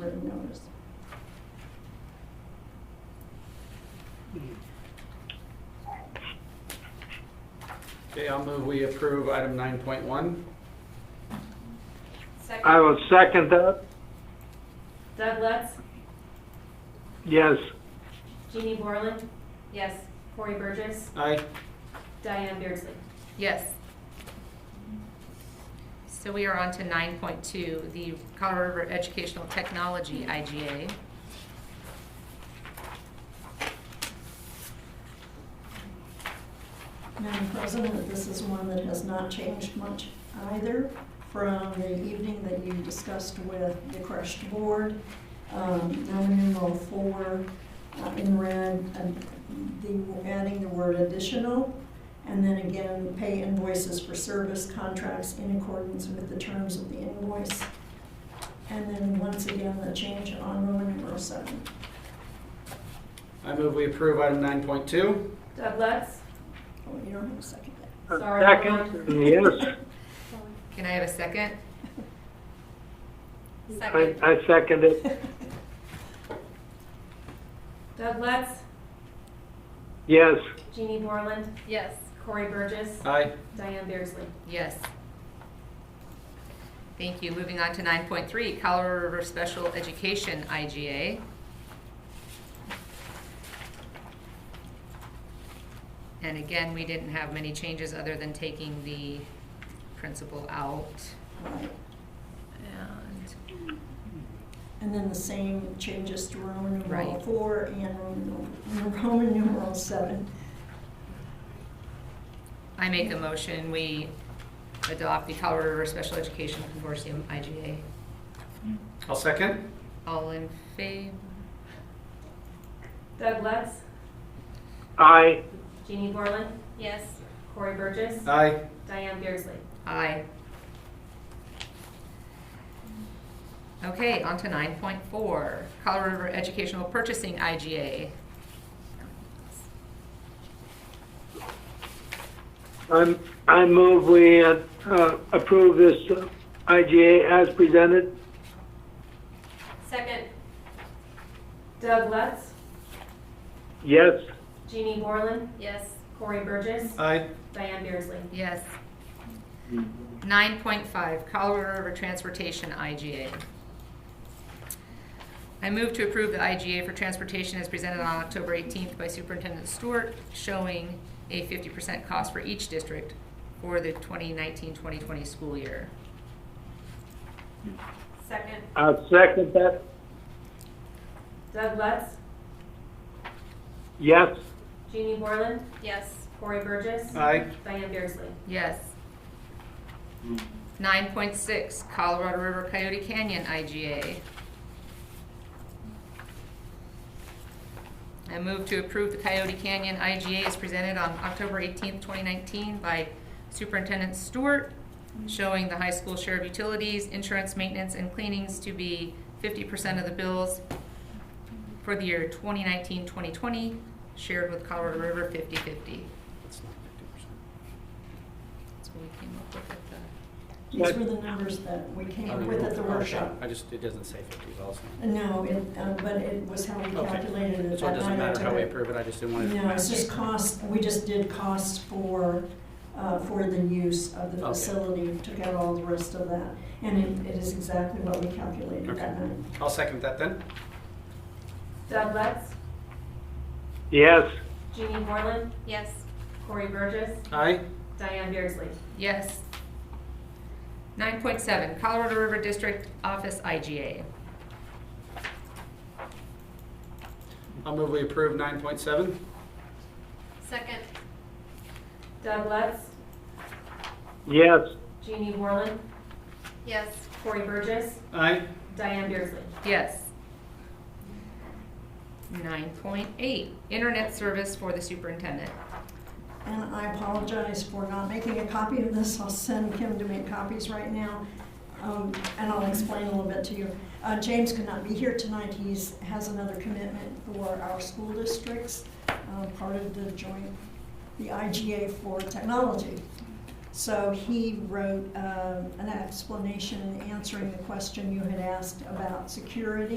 written notice. Okay, I'll move we approve item nine point one. I will second that. Doug Lutz, Yes. Jeannie Borland, Yes. Cory Burgess, Aye. Diane Beardsley. Yes. So we are on to nine point two, the Colorado River Educational Technology IGA. Madam President, this is one that has not changed much either from the evening that you discussed with the crushed board. Um, Now numeral four uh, in red, and the, adding the word additional. And then again, pay invoices for service contracts in accordance with the terms of the invoice. And then once again, the change on Roman numeral seven. I move we approve item nine point two. Doug Lutz, Oh, you don't have a second there. A Sorry, Second, and yes. Can I have a second? I, I second it. Doug Lutz, Yes. Jeannie Borland, Yes. Cory Burgess, Aye. Diane Beardsley. Yes. Thank you. Moving on to nine point three, Colorado River Special Education IGA. And again, we didn't have many changes other than taking the principal out Right. and And then the same changes to Roman numeral Right. four and Roman numeral- Roman numeral seven. I make a motion, we adopt the Colorado River Special Education Consortium, IGA. I'll second. All in favor? Doug Lutz, I, Jeannie Borland. Yes. Cory Burgess, Uh Aye. Diane Beardsley. Aye. Okay, on to nine point four, Colorado River Educational Purchasing, IGA. I'm, I move we uh, uh, approve this uh, IGA as presented. Second. Doug Lutz, Yes. Jeannie Borland. Yes. Cory Burgess, Uh Aye. Diane Beardsley. Yes. Nine point five, Colorado River Transportation, IGA. I move to approve the IGA for transportation as presented on October eighteenth by Superintendent Stewart, showing a fifty percent cost for each district for the 2019-2020 school year. Second. I second that. Doug Lutz, Yes. Jeannie Borland. Yes. Cory Burgess. Aye. Diane Beardsley. Yes. Nine point six, Colorado River Coyote Canyon IGA. I move to approve the Coyote Canyon IGA as presented on October eighteenth, twenty nineteen by Superintendent Stewart, showing the high school share of utilities, insurance, maintenance, and cleanings to be fifty percent of the bills for the year 2019-2020, shared with Colorado River 50-50. That's what we came up with at the. These were the numbers that we came with at the Okay. workshop. I just, it doesn't say fifty, is all I'm saying. No, it, um, but it was how we calculated Okay. it. So it that doesn't night I matter took how we it. approve it, I just didn't want to. No, it's just cost, we just did costs for, uh, for the use of the Okay. facility, took out all the rest of that. And it, it is exactly what we calculated that Okay. night. I'll second that then. Doug Lutz, Yes. Jeannie Borland. Yes. Cory Burgess, Aye. Diane Beardsley. Yes. Nine point seven, Colorado River District Office IGA. I'll move we approve nine point seven. Second. Doug Lutz, Yes. Jeannie Borland. Yes. Cory Burgess, Aye. Diane Beardsley. Yes. Nine point eight, internet service for the superintendent. And I apologize for not making a copy of this. I'll send Kim to make copies right now. Um, and I'll explain a little bit to you. Uh, James could not be here tonight. He's, has another commitment for our school districts, uh, part of the joint, the IGA for technology. So he uh, wrote, um an explanation answering the question you had asked about security.